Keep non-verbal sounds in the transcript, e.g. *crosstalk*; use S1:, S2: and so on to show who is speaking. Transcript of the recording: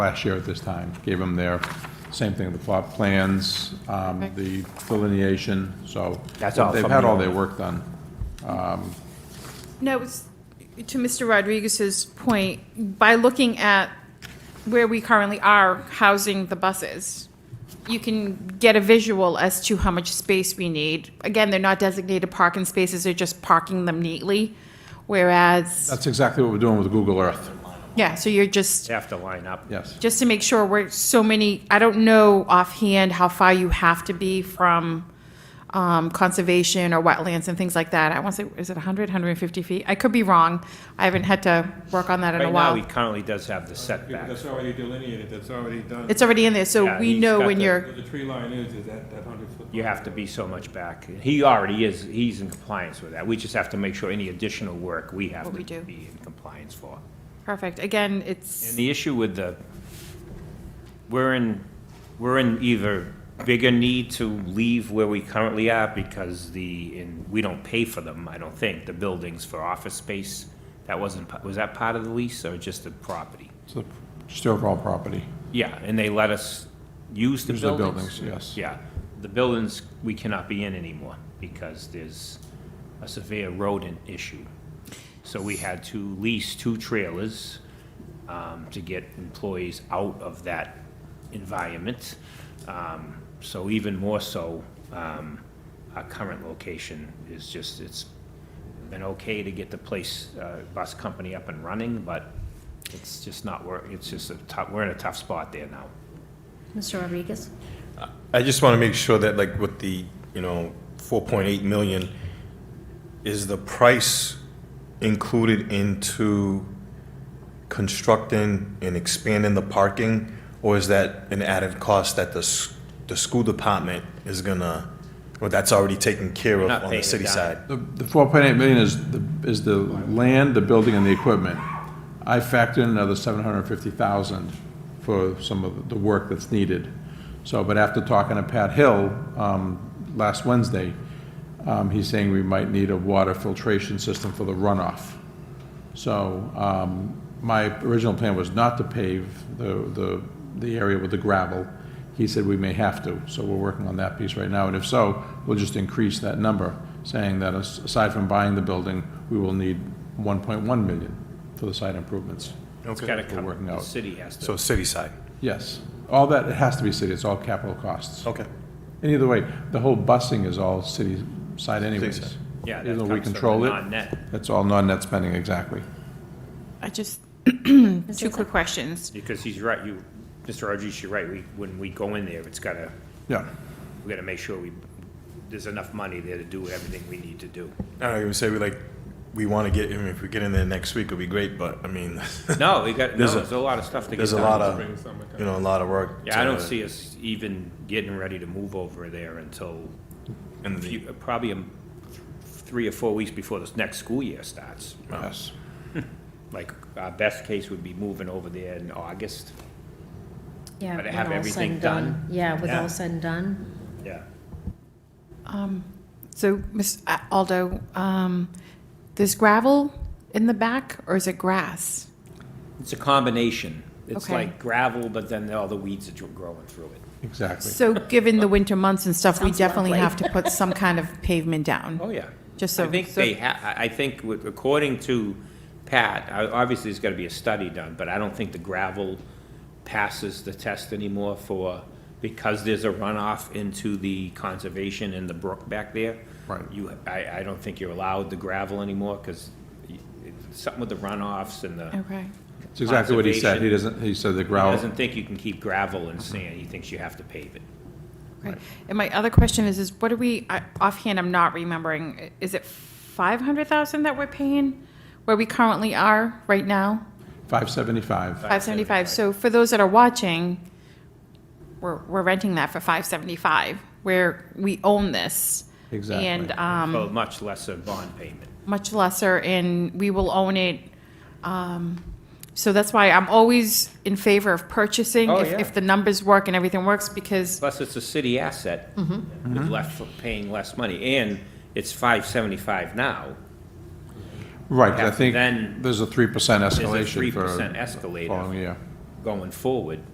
S1: last year at this time. Gave them their, same thing, the plot plans, um, the delineation, so.
S2: That's all
S1: They've had all
S2: familiar.
S1: their work done.
S3: No, it's, to Mr. Rodriguez's point, by looking at where we currently are housing the buses, you can get a visual as to how much space we need. Again, they're not designated parking spaces, they're just parking them neatly, whereas,
S1: That's exactly what we're doing with Google Earth,
S3: yeah, so you're just,
S2: have to line up.
S1: yes.
S3: just to make sure we're so many, I don't know offhand how far you have to be from um, conservation or wetlands and things like that. I want to say, is it 100, 150 feet? I could be wrong. I haven't had to work on that in a
S2: Right now, he
S3: while.
S2: currently does have the
S4: Yeah, but
S2: setback.
S4: that's already delineated, that's already done.
S3: It's already in there, so
S2: Yeah,
S3: we
S2: he's
S3: know
S2: got
S3: when
S2: the-
S3: you're,
S4: Where the tree line is, is that, that hundred foot.
S2: You have to be so much back. He already is, he's in compliance with that. We just have to make sure any additional work we have
S3: What we
S2: to
S3: do.
S2: be in compliance for.
S3: perfect. Again,
S2: And
S3: it's,
S2: the issue with the, we're in, we're in either bigger need to leave where we currently are because the, and we don't pay for them, I don't think, the buildings for office space. That wasn't, pa- was that part of the lease or just the property?
S1: It's the- Just the overall property.
S2: Yeah, and they let us use the
S1: Use the
S2: buildings.
S1: buildings, yes.
S2: Yeah, the buildings, we cannot be in anymore because there's a severe rodent issue. So we had to lease two trailers um, to get employees out of that environment. Um, So even more so, um, our current location is just, it's been okay to get the place, uh, bus company up and running, but it's just not work, it's just a tough, we're in a tough spot there now.
S5: Mr. Rodriguez?
S6: I just want to make sure that like with the, you know, 4.8 million, is the price included into constructing and expanding the parking? Or is that an added cost that the, s- the school department is gonna, or that's already taken care of
S2: not
S6: on
S2: paying
S6: the
S2: it
S6: city
S2: down.
S6: side?
S1: The the 4.8 million is, the is the land, the building, and the equipment. I factored in another 750,000 for some of the work that's needed. So, but after talking to Pat Hill um, last Wednesday, um, he's saying we might need a water filtration system for the runoff. So um, my original plan was not to pave the, the, the area with the gravel. He said we may have to, so we're working on that piece right now. And if so, we'll just increase that number, saying that as- aside from buying the building, we will need 1.1 million for the site improvements.
S2: It's gotta
S1: We're working
S2: come, the
S1: out.
S2: city has to.
S6: So city side,
S1: Yes, all that, it has to be city, it's all capital costs.
S6: okay.
S1: And either way, the whole busing is all city side anyways.
S6: side.
S2: Yeah, that
S1: Even though we
S2: comes from the
S1: control it,
S2: non-net.
S1: it's all non-net spending, exactly.
S3: I just,
S5: Ms.
S3: two
S5: Izzo?
S3: quick questions.
S2: Because he's right, you, Mr. Rodriguez, you're right, we, when we go in there, it's gotta,
S1: Yeah,
S2: we gotta make sure we, there's enough money there to do everything we need to do.
S6: I don't even say we like, we want to get, I mean, if we get in there next week, it'd be great, but I mean, *laughs*
S2: No, we got, no,
S6: There's a-
S2: there's a lot of stuff to get done.
S6: there's a lot of,
S4: Spring, summer time.
S6: you know, a lot of work.
S2: Yeah, I
S6: to-
S2: don't see us even getting ready to move over there until
S6: in the-
S2: few- probably um, three or four weeks before this next school year starts.
S1: yes.
S2: Like, our best case would be moving over there in August.
S5: Yeah.
S2: But
S5: when
S2: have
S5: all said
S2: everything
S5: and
S2: done.
S5: Yeah, with
S2: Yeah.
S5: all said and done.
S2: Yeah.
S3: So, Ms. A- Aldo, um, there's gravel in the back, or is it grass?
S2: It's a combination. It's
S3: Okay.
S2: like gravel, but then all the weeds that you're growing through it.
S1: Exactly.
S2: *laughs*
S3: So, given the winter months and stuff, we
S5: Sounds
S3: definitely
S5: lovely.
S3: have to put some kind of pavement down.
S2: Oh, yeah.
S3: Just
S2: I
S3: so-
S2: think
S3: so-
S2: they ha, I, I think with, according to Pat, I- obviously there's gotta be a study done, but I don't think the gravel passes the test anymore for, because there's a runoff into the conservation and the brook back there.
S1: Right.
S2: You, I, I don't think you're allowed the gravel anymore, cause y- it's something with the runoffs and the,
S3: Okay.
S1: It's exactly what he said. He
S2: Conservation.
S1: doesn't, he said the
S2: he
S1: growl,
S2: doesn't think you can keep gravel and sand, he thinks you have to pave it.
S3: Right. And my other question is, is what are we, I- offhand, I'm not remembering, is it 500,000 that we're paying where we currently are right now?
S1: 575.
S3: 575, so for those that are watching, we're, we're renting that for 575, where we own this.
S1: Exactly.
S3: And um,
S2: So much lesser bond payment.
S3: much lesser, and we will own it. Um, So that's why I'm always in favor of purchasing
S2: Oh,
S3: if
S2: yeah.
S3: if the numbers work and everything works, because,
S2: Plus, it's a city asset,
S1: Mm-hmm.
S2: with less, paying less money, and it's five seventy-five now,
S1: Right, 'cause I
S2: After then,
S1: think there's a 3%
S2: there's a three
S1: escalation for
S2: percent escalator.
S1: following year.
S2: going forward,